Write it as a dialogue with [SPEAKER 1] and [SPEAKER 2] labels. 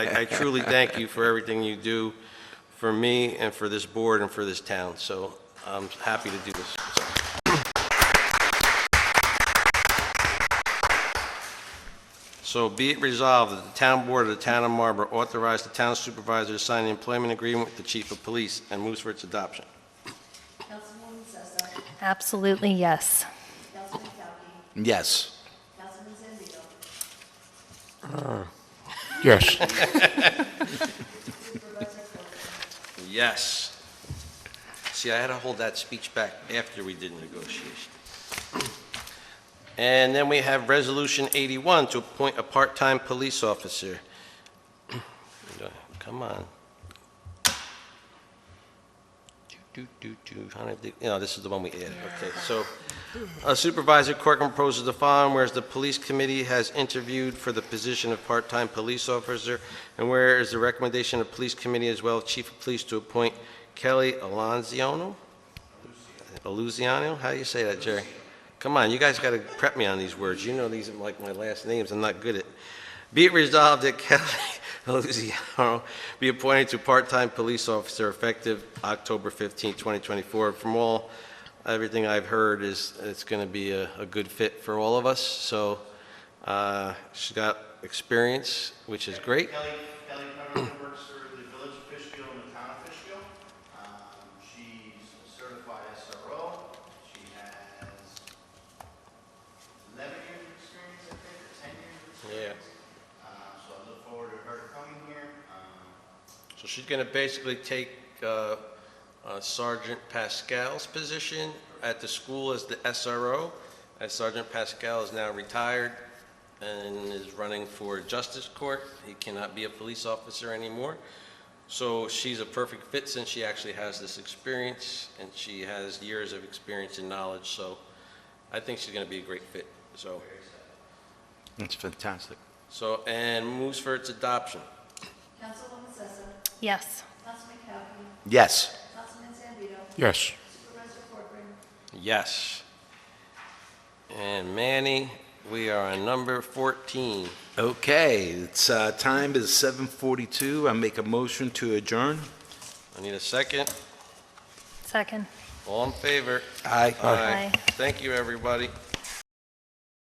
[SPEAKER 1] I I truly thank you for everything you do for me and for this board and for this town, so I'm happy to do this. So, So be it resolved that the town board of the town of Marlborough authorize the town supervisor to sign an employment agreement with the chief of police and moves for its adoption.
[SPEAKER 2] Councilwoman Sessa,
[SPEAKER 3] Absolutely, yes.
[SPEAKER 2] Councilman Cowkey,
[SPEAKER 4] Yes.
[SPEAKER 2] Councilman Zambito,
[SPEAKER 5] Yes.
[SPEAKER 2] Supervisor Coker,
[SPEAKER 1] Yes. See, I had to hold that speech back after we did negotiation. And then we have Resolution 81 to appoint a part-time police officer. Come on. Trying to do- You know, this is the one we added, okay. So uh, Supervisor Corcoran proposes the following, whereas the Police Committee has interviewed for the position of part-time police officer, and where is the recommendation of Police Committee as well, as Chief of Police to appoint Kelly Alonziano? Aluziano, how do you say that, Jerry? Come on, you guys got to prep me on these words. You know these are like my last names, I'm not good at. Be it resolved that Kelly Aluziano be appointed to part-time police officer effective October 15, 2024. From all, everything I've heard is, it's going to be a, a good fit for all of us, so uh, she's got experience, which is great.
[SPEAKER 6] Kelly, Kelly Pemberton works for the village of Fishkill and the town of Fishkill. Um, She's a certified SRO. She has 11 years of experience, I think, or 10 years of
[SPEAKER 1] Yeah.
[SPEAKER 6] experience. Uh, So I look forward to her coming here. Um,
[SPEAKER 1] So she's going to basically take uh, uh, Sergeant Pascal's position at the school as the SRO, as Sergeant Pascal is now retired and is running for Justice Court. He cannot be a police officer anymore. So she's a perfect fit since she actually has this experience, and she has years of experience and knowledge, so I think she's going to be a great fit, so.
[SPEAKER 4] That's fantastic.
[SPEAKER 1] So, and moves for its adoption.
[SPEAKER 2] Councilwoman Sessa,
[SPEAKER 3] Yes.
[SPEAKER 2] Councilman Cowkey,
[SPEAKER 4] Yes.
[SPEAKER 2] Councilman Zambito,
[SPEAKER 5] Yes.
[SPEAKER 2] Supervisor Corcoran,
[SPEAKER 1] Yes. And Manny, we are on number 14.
[SPEAKER 4] Okay, it's, uh, time is 7:42. I make a motion to adjourn.
[SPEAKER 1] I need a second.
[SPEAKER 3] Second.
[SPEAKER 1] All in favor?
[SPEAKER 4] Aye.
[SPEAKER 3] Aye.
[SPEAKER 1] Thank you, everybody.